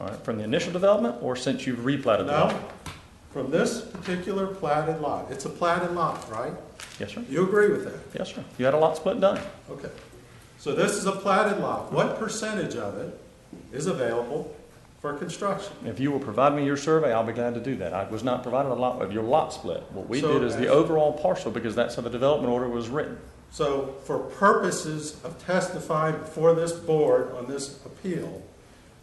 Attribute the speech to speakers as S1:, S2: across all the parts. S1: All right, from the initial development or since you've replatted the lot?
S2: Now, from this particular platted lot, it's a platted lot, right?
S1: Yes, sir.
S2: You agree with that?
S1: Yes, sir. You had a lot split done.
S2: Okay. So this is a platted lot. What percentage of it is available for construction?
S1: If you will provide me your survey, I'll be glad to do that. I was not provided a lot of your lot split. What we
S2: So-
S1: did is the overall parcel, because that's how the development order was written.
S2: So for purposes of testifying before this board on this appeal,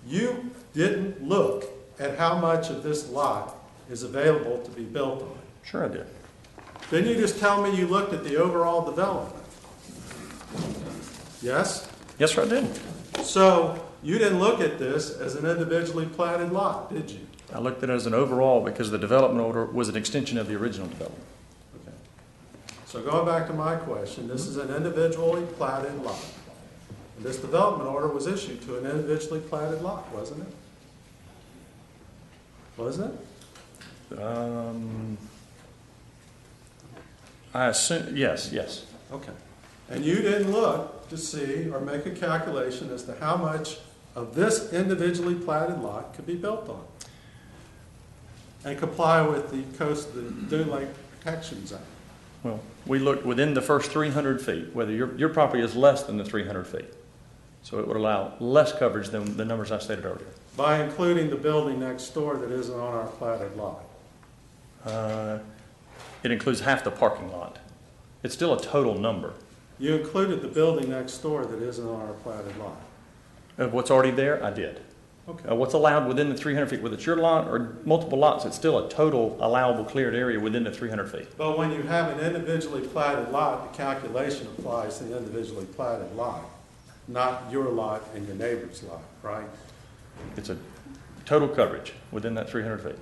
S2: you didn't look at how much of this lot is available to be built on.
S1: Sure I did.
S2: Then you just tell me you looked at the overall development. Yes?
S1: Yes, sir, I did.
S2: So you didn't look at this as an individually platted lot, did you?
S1: I looked at it as an overall because the development order was an extension of the original development.
S2: Okay. So going back to my question, this is an individually platted lot. And This development order was issued to an individually platted lot, wasn't it? Wasn't it?
S1: Um, I assume, yes, yes.
S2: Okay. And you didn't look to see or make a calculation as to how much of this individually platted lot could be built on? And comply with the coast, the Dune Lake Protections Act?
S1: Well, we looked within the first 300 feet, whether your, your property is less than the 300 feet. So it would allow less coverage than the numbers I stated earlier.
S2: By including the building next door that isn't on our platted lot.
S1: Uh, It includes half the parking lot. It's still a total number
S2: You included the building next door that isn't on our platted lot.
S1: of what's already there, I did. Uh,
S2: Okay,
S1: What's allowed within the 300 feet, whether it's your lot or multiple lots, it's still a total allowable cleared area within the 300 feet.
S2: but when you have an individually platted lot, the calculation applies to the individually platted lot, not your lot and your neighbor's lot, right?
S1: It's a total coverage within that 300 feet.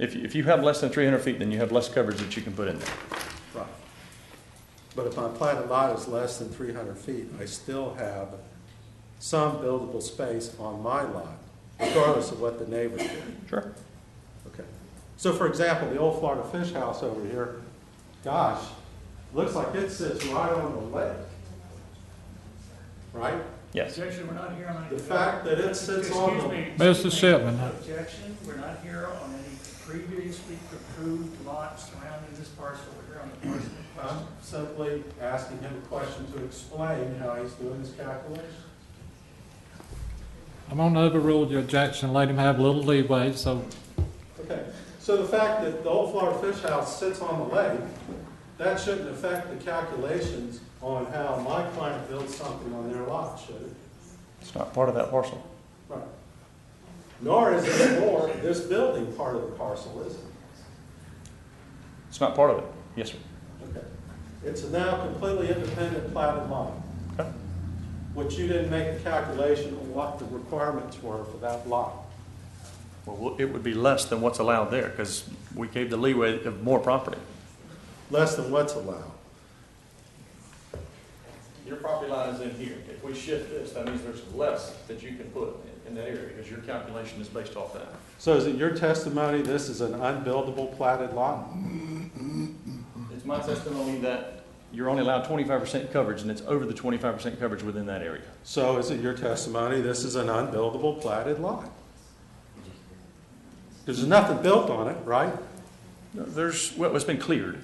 S1: If, you- if you have less than 300 feet, then you have less coverage that you can put in there.
S2: Right. But if my platted lot is less than three hundred feet, I still have some buildable space on my lot, regardless of what the neighbors do.
S1: Sure.
S2: Okay. So for example, the old Florida Fish House over here, gosh, looks like it sits right on the lake. Right?
S1: Yes.
S3: Objection, we're not here on any.
S2: The fact that it sits
S3: Excuse
S2: on the-
S3: me,
S4: Mr. Shipman.
S3: Objection, we're not here on any previously approved lots surrounding this parcel. We're here on the parcel in
S2: I'm
S3: question.
S2: simply asking him a question to explain how he's doing his calculation.
S4: I'm going to overrule your objection, let him have a little leeway, so
S2: Okay, so the fact that the old Florida Fish House sits on the lake, that shouldn't affect the calculations on how my client builds something on their lot, should it?
S1: It's not part of that parcel.
S2: Right. Nor is it more this building part of the parcel, is it?
S1: It's not part of it. Yes, sir.
S2: Okay. It's a now completely independent platted lot,
S1: Okay.
S2: which you didn't make a calculation on what the requirements were for that lot.
S1: Well, Well, it would be less than what's allowed there because we gave the leeway of more property.
S2: Less than what's allowed.
S1: Your property line is in here. If we shift this, that means there's less that you can put in that area because your calculation is based off that.
S2: So is it your testimony this is an unbuildable platted lot?
S1: It's my testimony that you're only allowed twenty-five percent coverage and it's over the twenty-five percent coverage within that area.
S2: So is it your testimony, this is an unbuildable platted lot? There's nothing built on it, right?
S1: There's, well, it's been cleared.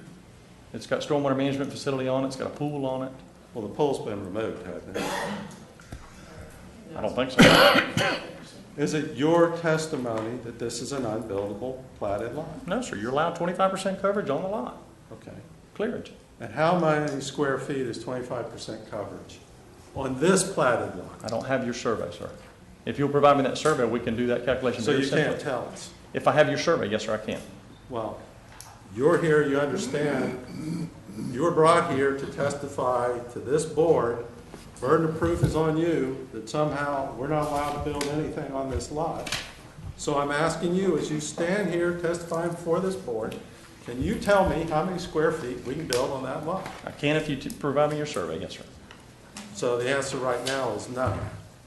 S1: It's got stormwater management facility on it, it's got a pool on it.
S2: Well, the pool's been removed, hasn't it?
S1: I don't think so.
S2: Is it your testimony that this is an unbuildable platted lot?
S1: No, sir, you're allowed twenty-five percent coverage on the lot,
S2: Okay.
S1: clearage.
S2: And how many square feet is twenty-five percent coverage on this platted lot?
S1: I don't have your survey, sir. If you'll provide me that survey, we can do that calculation
S2: So
S1: very
S2: you can't
S1: simply.
S2: tell us.
S1: If I have your survey, yes, sir, I can.
S2: Well, you're here, you understand, you were brought here to testify to this board. Burden of proof is on you that somehow we're not allowed to build anything on this lot. So I'm asking you, as you stand here testifying before this board, can you tell me how many square feet we can build on that lot?
S1: I can if you t- provide me your survey, yes, sir.
S2: So the answer right now is no.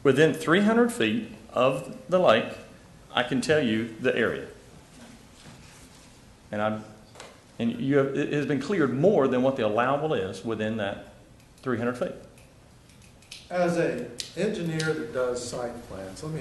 S1: Within three hundred feet of the lake, I can tell you the area. And I'm, and you have, it has been cleared more than what the allowable is within that three hundred feet.
S2: As a engineer that does site plans, let me